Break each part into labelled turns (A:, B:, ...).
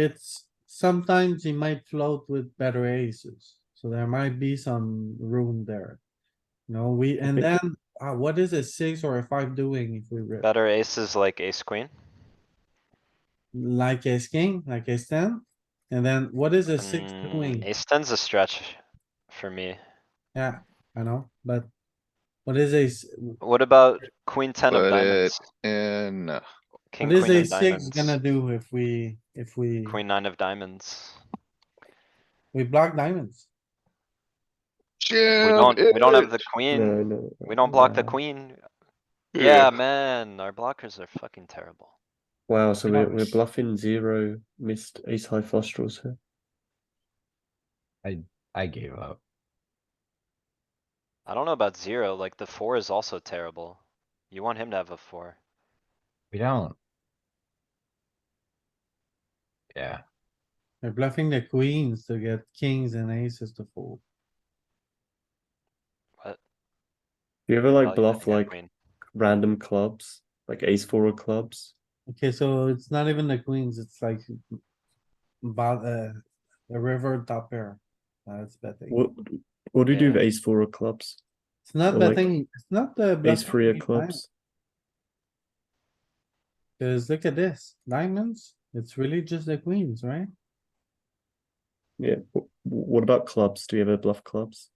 A: it's sometimes he might float with better aces, so there might be some room there. No, we, and
B: Okay.
A: then, uh, what is a six or a five doing if we rip?
C: Better aces like ace queen.
A: Like ace king, like ace ten? And then what is a six
C: Mm,
A: doing?
C: Ace ten's a stretch for me.
A: Yeah, I know, but what is ace,
C: What about queen ten of
D: But it-
C: diamonds?
D: And uh,
C: King,
A: what is
C: queen
A: a
C: of
A: six gonna
C: diamonds.
A: do if we, if we,
C: Queen nine of diamonds.
A: we block diamonds?
C: We
D: jam
C: don't, we don't
D: it.
C: have
D: Hmm.
C: the
B: No,
C: queen.
B: no.
C: We don't block the
B: yeah.
C: queen.
D: Yeah.
C: Yeah, man, our blockers are fucking terrible.
B: Wow, so we're, we're
A: Nice.
B: bluffing zero missed ace high nostrils here.
E: I gave up.
C: I don't know about zero, like the four is also terrible. You want him to have a four.
E: We don't. Yeah,
A: They're bluffing the queens to get kings and aces to fold.
B: Do you ever
C: Oh,
B: like
C: yeah,
B: bluff
C: yeah,
B: like
C: queen.
B: random clubs, like ace four of clubs?
A: Okay, so it's not even the queens, it's like about uh, a river top pair. That's betting.
B: What what do you do
C: Yeah.
B: with ace four of clubs?
A: It's not
B: or like
A: betting, it's not the.
B: Ace
A: bluffing
B: three of
A: big
B: clubs?
A: blind, Cause look at this, diamonds, it's really just the queens, right?
B: Yeah. wh- wh- What about clubs? Do you ever bluff clubs?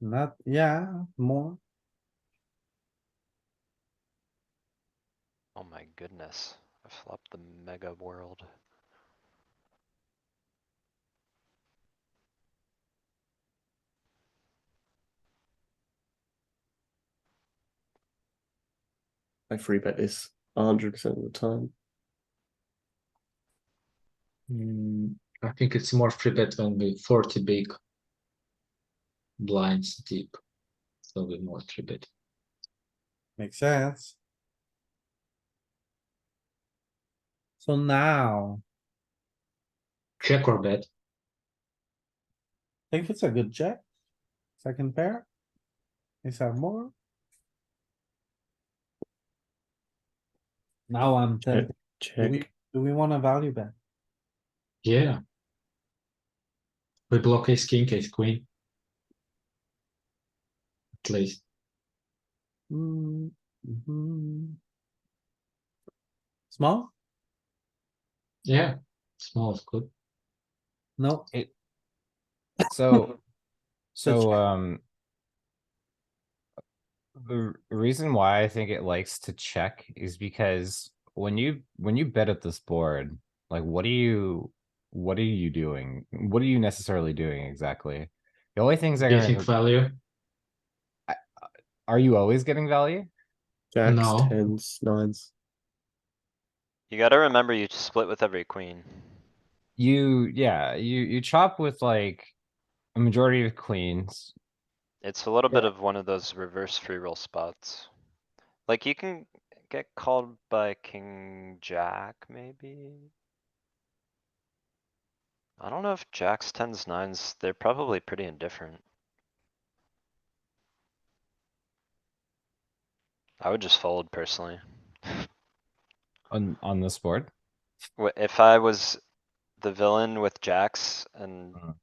A: Not, yeah, more.
C: Oh my goodness, I flopped the mega world.
B: I free bet this hundred percent of the time.
F: Mm, I think it's more free bet when we 40 big blinds deep. So we more three bet.
A: Makes sense. So now,
F: Check or bet.
A: I think it's a good check. Second pair. Is that more? Now I'm tempted. Do
B: Check.
A: we, do we wanna value bet?
F: Yeah. We block ace king, ace queen. At least.
A: Hmm, mhm. Small?
F: Yeah. Small is good.
A: No,
E: so, so,
A: check.
E: um. The r- reason why I think it likes to check is because when you, when you bet at this board, like what are you, what are you doing? What are you necessarily doing exactly? The only things I
F: Getting
E: gotta,
F: value.
E: are you always getting value?
B: Jacks,
F: No.
B: tens, nines.
C: You gotta remember you split with every queen.
E: You, yeah, you, you chop with like a majority of queens.
C: It's a little bit of one of those reverse free roll spots. Like you can get called by king jack, maybe? I don't know if jacks, tens, nines, they're probably pretty indifferent. I would just fold personally.
E: On, on this board?
C: Wh- If I was the villain with jacks and
B: Mm-hmm.
E: Mhm.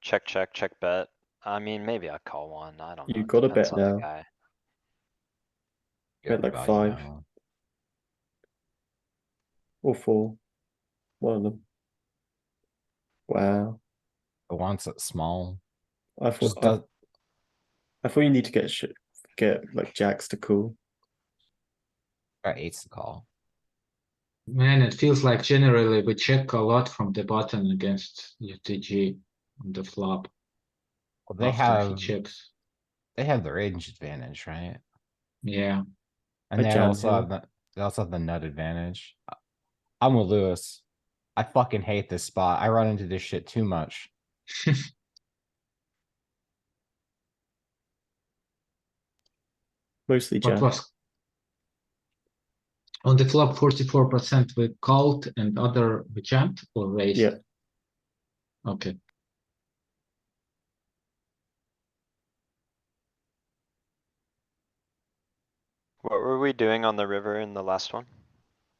C: check, check, check bet, I mean, maybe I'd call one, I don't know.
B: You
C: it
B: gotta
C: depends
B: bet
C: on the
B: now.
C: guy.
E: Good
B: Bet like
E: value
B: five.
E: now.
B: Or four. One of them. Wow.
E: It wants it small.
B: I thought
E: Just
B: I,
E: does-
B: I thought you need to get shit get like jacks to call.
E: or eight's the call.
F: Man, it feels like generally we check a lot from the button against UTG on the flop.
E: Well, they
F: after he
E: have,
F: checks.
E: they have the range advantage, right?
F: Yeah.
E: And they
B: jam
E: also
B: him.
E: have the, they also have the nut advantage. I- I'm with Lewis. I fucking hate this spot. I run into this shit too much.
B: Mostly
F: What
B: jacks.
F: was? On the flop, forty-four percent we called and other we jammed or raised?
B: Yeah.
F: Okay,
C: What were we doing on the river in the last one?